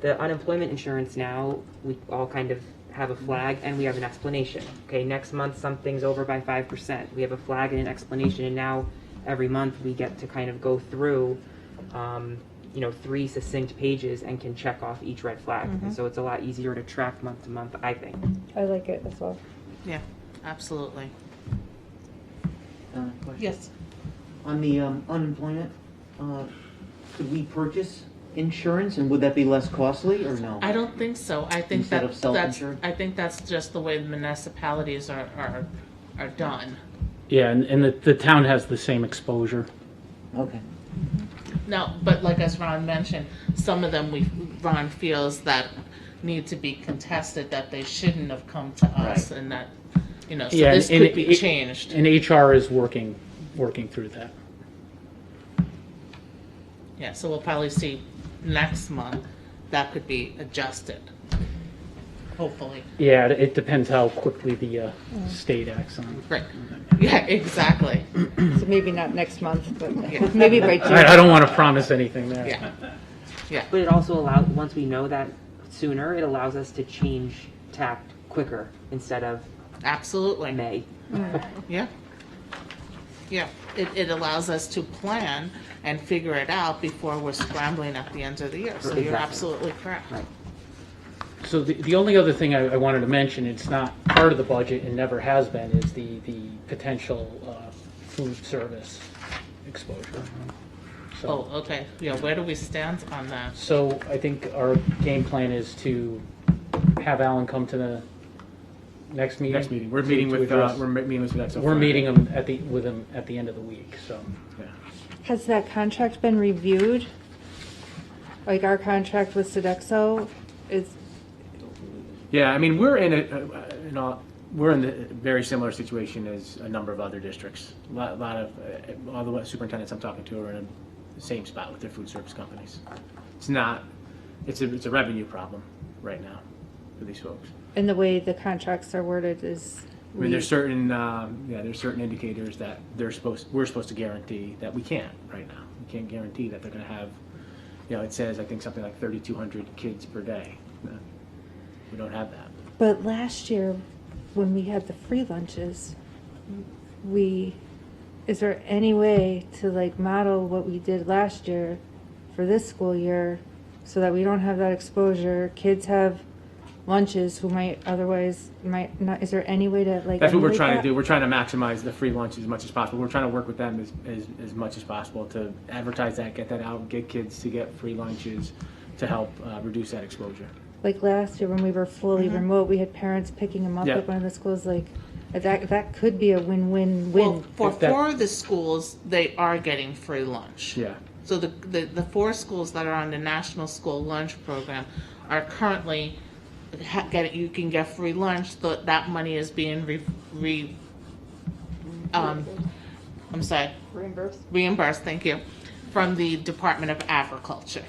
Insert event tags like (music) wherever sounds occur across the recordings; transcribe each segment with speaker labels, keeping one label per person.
Speaker 1: the unemployment insurance now, we all kind of have a flag and we have an explanation. Okay, next month, something's over by five percent. We have a flag and an explanation, and now every month we get to kind of go through, um, you know, three succinct pages and can check off each red flag. And so it's a lot easier to track month to month, I think.
Speaker 2: I like it as well.
Speaker 3: Yeah, absolutely.
Speaker 4: Uh, question.
Speaker 3: Yes.
Speaker 4: On the um, unemployment, uh, could we purchase insurance and would that be less costly or no?
Speaker 3: I don't think so. I think
Speaker 4: Instead
Speaker 3: that,
Speaker 4: of
Speaker 3: that's,
Speaker 4: self-insured?
Speaker 3: I think that's just the way the municipalities are, are, are done.
Speaker 5: Yeah, and, and the, the town has the same exposure.
Speaker 4: Okay.
Speaker 3: No, but like as Ron mentioned, some of them we, Ron feels that need to be contested, that they shouldn't have come to us and that, you know, so
Speaker 5: Yeah,
Speaker 3: this
Speaker 5: and-
Speaker 3: could be
Speaker 5: and-
Speaker 3: changed.
Speaker 5: And HR is working, working through that.
Speaker 3: Yeah, so we'll probably see next month, that could be adjusted, hopefully.
Speaker 5: Yeah, it- it depends how quickly the uh, state acts on it.
Speaker 3: Right, yeah, exactly,
Speaker 2: So maybe not next month, but
Speaker 3: Yeah.
Speaker 2: maybe by June.
Speaker 5: I, I don't want to promise anything there.
Speaker 3: yeah, yeah.
Speaker 1: But it also allows, once we know that sooner, it allows us to change tact quicker instead of
Speaker 3: Absolutely,
Speaker 1: May.
Speaker 3: yeah. Yeah, it, it allows us to plan and figure it out before we're scrambling at the end of the year, so you're
Speaker 1: Exactly.
Speaker 3: absolutely correct.
Speaker 1: Right.
Speaker 5: So the, the only other thing I, I wanted to mention, it's not part of the budget and never has been, is the, the potential uh, food service exposure. So-
Speaker 3: Oh, okay, yeah, where do we stand on that?
Speaker 5: So I think our game plan is to have Alan come to the next meeting.
Speaker 6: Next meeting, we're
Speaker 5: to-
Speaker 6: meeting
Speaker 5: to
Speaker 6: with, uh,
Speaker 5: address-
Speaker 6: we're me- meeting with that. so
Speaker 5: We're
Speaker 6: Friday.
Speaker 5: meeting him at the, with him at the end of the week, so.
Speaker 6: Yeah.
Speaker 2: Has that contract been reviewed? Like our contract with Sodexo is,
Speaker 6: Yeah, I mean, we're in a, uh, in all, we're in a very similar situation as a number of other districts. A lot, lot of, uh, all the superintendents I'm talking to are in the same spot with their food service companies. It's not, it's a, it's a revenue problem right now for these folks.
Speaker 2: in the way the contracts are worded is.
Speaker 6: I mean, there's
Speaker 2: Mm-hmm.
Speaker 6: certain, um, yeah, there's certain indicators that they're supposed, we're supposed to guarantee that we can't right now. We can't guarantee that they're gonna have, you know, it says, I think, something like thirty-two hundred kids per day. We don't have that.
Speaker 2: But last year, when we had the free lunches, we, is there any way to like model what we did last year for this school year so that we don't have that exposure? Kids have lunches who might otherwise might not, is there any way to like?
Speaker 6: That's what we're
Speaker 2: emulate
Speaker 6: trying to
Speaker 2: that?
Speaker 6: do. We're trying to maximize the free lunch as much as possible. We're trying to work with them as, as, as much as possible to advertise that, get that out, get kids to get free lunches to help uh, reduce that exposure.
Speaker 2: Like last year when we were fully remote, we had parents picking them up
Speaker 6: Yeah.
Speaker 2: at one of the schools. Like that, that could be a win-win-win.
Speaker 3: Well, for
Speaker 5: if that-
Speaker 3: four of the schools, they are getting free lunch.
Speaker 6: Yeah.
Speaker 3: So the, the, the four schools that are on the National School Lunch Program are currently, ha- get, you can get free lunch, tho- that money is being re, re, um, I'm sorry. Reimbursed. Reimbursed, thank you, from the Department of Agriculture.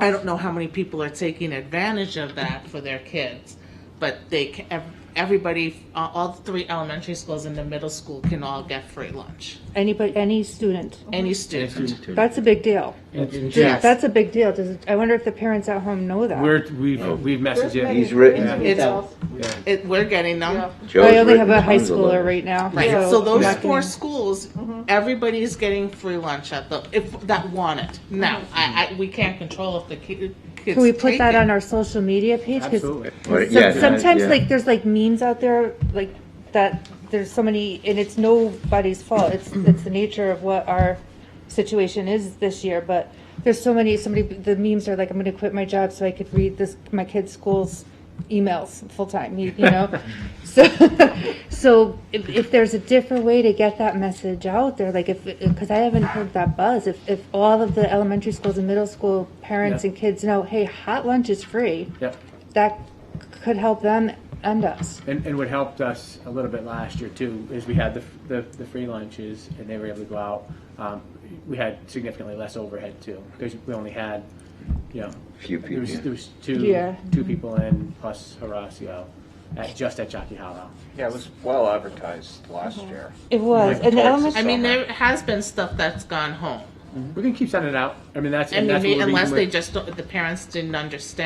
Speaker 3: I don't know how many people are taking advantage of that for their kids, but they, ca- ev- everybody, uh, all three elementary schools and the middle school can all get free lunch.
Speaker 2: Anybody, any student.
Speaker 3: Any
Speaker 6: And if
Speaker 3: student.
Speaker 6: you-
Speaker 2: That's a big deal.
Speaker 5: And- and
Speaker 3: Yes.
Speaker 2: That's a big deal. Does, I wonder if the parents at home know that.
Speaker 6: We're, we've, we've messaged it.
Speaker 7: He's written.
Speaker 3: It's, it, we're getting them.
Speaker 2: I only have a high schooler right now.
Speaker 3: Right. So those
Speaker 2: not
Speaker 3: four
Speaker 2: gonna-
Speaker 3: schools,
Speaker 2: Mm-hmm.
Speaker 3: everybody's getting free lunch at the if that want it. Now, I, I we can't control if the ki- kids.
Speaker 2: Mm-hmm. Can we put
Speaker 3: take
Speaker 2: that
Speaker 3: it.
Speaker 2: on our social media page? 'Cause
Speaker 6: Absolutely.
Speaker 7: Right,
Speaker 2: some-
Speaker 7: yeah,
Speaker 2: sometimes
Speaker 7: yeah.
Speaker 2: like there's like memes out there like that. There's so many, and it's nobody's fault. It's it's the nature of what our situation is this year. But there's so many. Somebody the memes are like, I'm going to quit my job so I could read this my kids' school's emails full time. You,
Speaker 7: (laughs)
Speaker 2: you know, so so if, if there's a different way to get that message out there, like if because I haven't heard that buzz. If if all of the elementary schools and middle school parents
Speaker 6: Yeah.
Speaker 2: and kids know, hey, hot lunch is free
Speaker 6: Yep.
Speaker 2: that could help them and us.
Speaker 6: And, and what helped us a little bit last year too is we had the, the, the free lunches and they were able to go out. Um, we had significantly less overhead too because we only had, you know,
Speaker 7: Few
Speaker 6: there was,
Speaker 7: people,
Speaker 6: there
Speaker 7: yeah.
Speaker 6: was two
Speaker 2: Yeah.
Speaker 6: two people in plus Horacio at just at Jockey Hollow.
Speaker 8: Yeah, it was well advertised last year.
Speaker 2: It was,
Speaker 6: Like
Speaker 2: and the
Speaker 8: Texas.
Speaker 2: elementary,
Speaker 3: I mean,
Speaker 8: summer.
Speaker 3: there has been stuff that's gone home.
Speaker 6: We can keep sending it out. I mean, that's
Speaker 3: I
Speaker 6: and that's what
Speaker 3: mean,
Speaker 6: we're
Speaker 3: unless
Speaker 6: reading
Speaker 3: they
Speaker 6: with-
Speaker 3: just, don't- the parents didn't understand